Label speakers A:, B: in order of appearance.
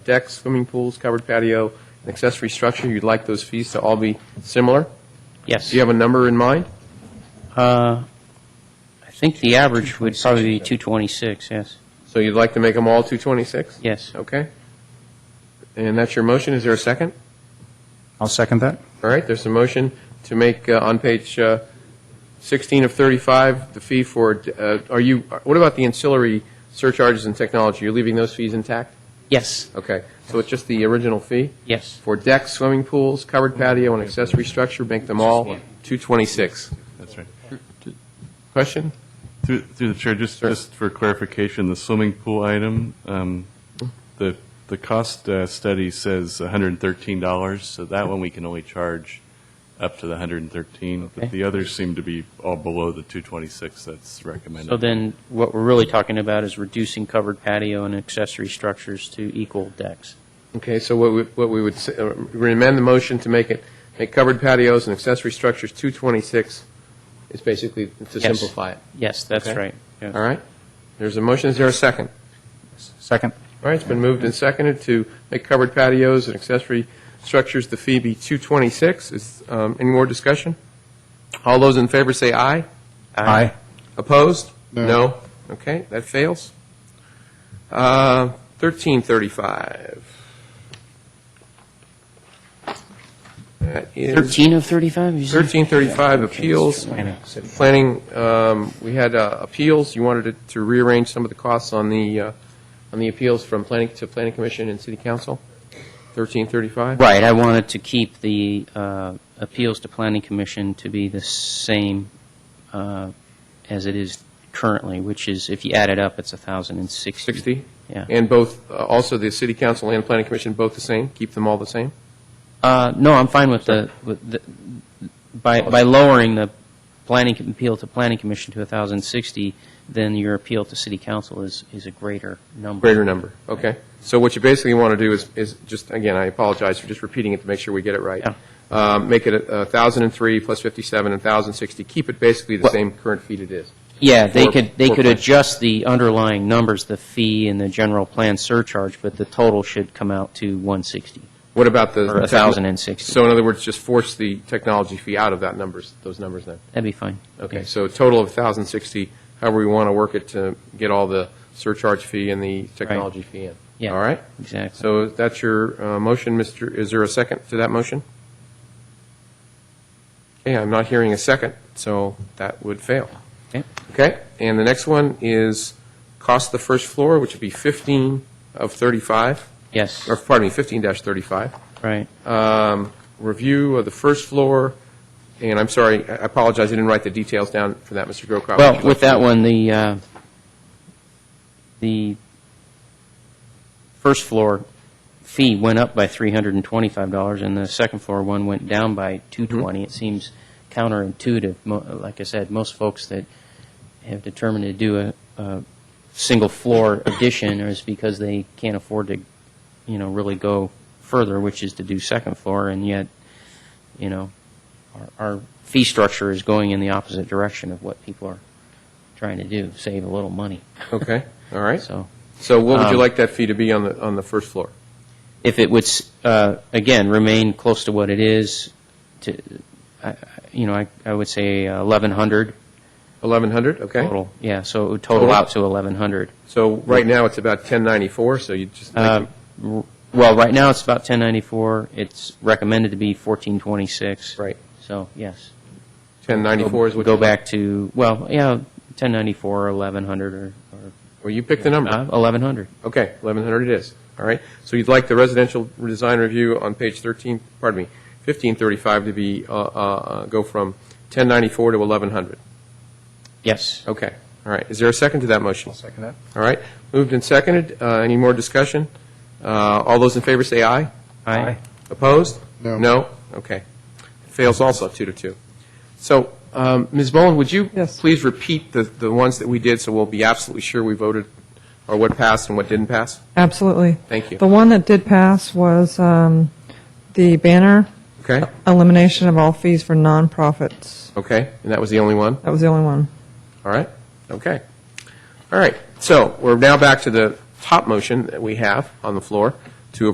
A: decks, swimming pools, covered patio, and accessory structure, you'd like those fees to all be similar?
B: Yes.
A: Do you have a number in mind?
B: Uh, I think the average would probably be 226, yes,
A: So you'd like to make them all 226?
B: yes.
A: Okay. And that's your motion. Is there a second?
C: I'll second that.
A: All right, there's a motion to make uh, on page uh, 16 of 35, the fee for, uh, are you, what about the ancillary surcharges and technology? You're leaving those fees intact?
B: Yes,
A: Okay, so it's just the original fee?
B: yes,
A: For decks, swimming pools, covered patio, and accessory structure, make them all 226.
D: That's right.
A: Question?
D: Through through the chair, just,
A: Sure.
D: just for clarification, the swimming pool item, um, the, the cost uh, study says $113, so that one we can only charge up to the 113.
B: Okay.
D: But the others seem to be all below the 226 that's recommended.
B: so then what we're really talking about is reducing covered patio and accessory structures to equal decks.
A: Okay, so what we, what we would, s- uh, we amend the motion to make it, make covered patios and accessory structures 226, is basically to
B: Yes.
A: simplify it.
B: Yes, that's
A: Okay.
B: right. yes.
A: All right? There's a motion, is there a second?
C: Second.
A: All right, it's been moved and seconded to make covered patios and accessory structures the fee be 226. Is, um, any more discussion? All those in favor say aye.
C: Aye.
A: Opposed? No. Okay, that fails. Uh, 1335. That is
B: 13 of 35, you said?
A: 1335 appeals.
B: I know.
A: Planning, um, we had uh, appeals, you wanted to- to rearrange some of the costs on the, uh, on the appeals from planning to planning commission and city council, 1335?
B: Right, I wanted to keep the uh, appeals to planning commission to be the same uh, as it is currently, which is, if you add it up, it's 1,060.
A: 60?
B: Yeah.
A: And both, uh, also the city council and planning commission, both the same? Keep them all the same?
B: Uh, no, I'm fine with the, with the, by, by lowering the planning, com- appeal to planning commission to 1,060, then your appeal to city council is, is a greater number.
A: Greater number, okay. So what you basically want to do is, is just, again, I apologize for just repeating it to make sure we get it right.
B: Yeah.
A: Um, Make it a 1,003 plus 57 and 1,060, keep it basically the
B: Well-
A: same current fee it is.
B: Yeah, they
A: Four-
B: could, they
A: four
B: could
A: points.
B: adjust the underlying numbers, the fee and the general plan surcharge, but the total should come out to 160,
A: What about the?
B: or 1,060.
A: So in other words, just force the technology fee out of that numbers, those numbers then?
B: That'd be fine.
A: Okay, so a total of 1,060, however we want to work it to get all the surcharge fee and the technology fee in.
B: Yeah.
A: All right?
B: Exactly.
A: So that's your uh, motion, Mr., is there a second to that motion? Okay, I'm not hearing a second, so that would fail.
B: Okay.
A: Okay, and the next one is cost the first floor, which would be 15 of 35,
B: Yes,
A: or pardon me, 15 dash 35
B: right.
A: um, review of the first floor, and I'm sorry, I apologize, I didn't write the details down for that, Mr. Grocott.
B: Well, with that one, the, uh, the first floor fee went up by $325, and the second floor one went down by 220. It seems counterintuitive. Mo- Like I said, most folks that have determined to do a, a single floor addition is because they can't afford to, you know, really go further, which is to do second floor, and yet, you know, our, our fee structure is going in the opposite direction of what people are trying to do, save a little money.
A: Okay, all right.
B: So
A: So what would you
B: um,
A: like that fee to be on the, on the first floor?
B: if it would, s- uh, again, remain close to what it is, to, I- I- you know, I, I would say uh, 1,100
A: 1,100, okay?
B: total. Yeah, so it would total
A: Total?
B: out to 1,100.
A: So right now, it's about 1094, so you just,
B: Uh,
A: like-
B: r- Well, right now, it's about 1094. It's recommended to be 1426.
A: Right.
B: So, yes.
A: 1094 is what?
B: Go
A: you-
B: back to, well, yeah, 1094 or 1,100 or or,
A: Well, you pick the number.
B: uh, 1,100.
A: Okay, 1,100 it is, all right? So you'd like the residential design review on page 13, pardon me, 1535 to be, uh, uh, uh, go from 1094 to 1,100?
B: Yes.
A: Okay, all right. Is there a second to that motion?
C: second that.
A: All right, moved and seconded. Uh, Any more discussion? Uh, All those in favor say aye.
B: Aye.
A: Opposed?
C: No.
A: No? Okay. Fails also, two to two. So, um, Ms. Bowen, would you please repeat the the ones that we did, so we'll be absolutely sure we voted, or what passed and what didn't pass?
E: Absolutely.
A: Thank you.
E: The one that did pass was um, the banner
A: Okay,
E: elimination of all fees for nonprofits.
A: okay, and that was the only one?
E: That was the only one.
A: All right, okay. All right, so we're now back to the top motion that we have on the floor,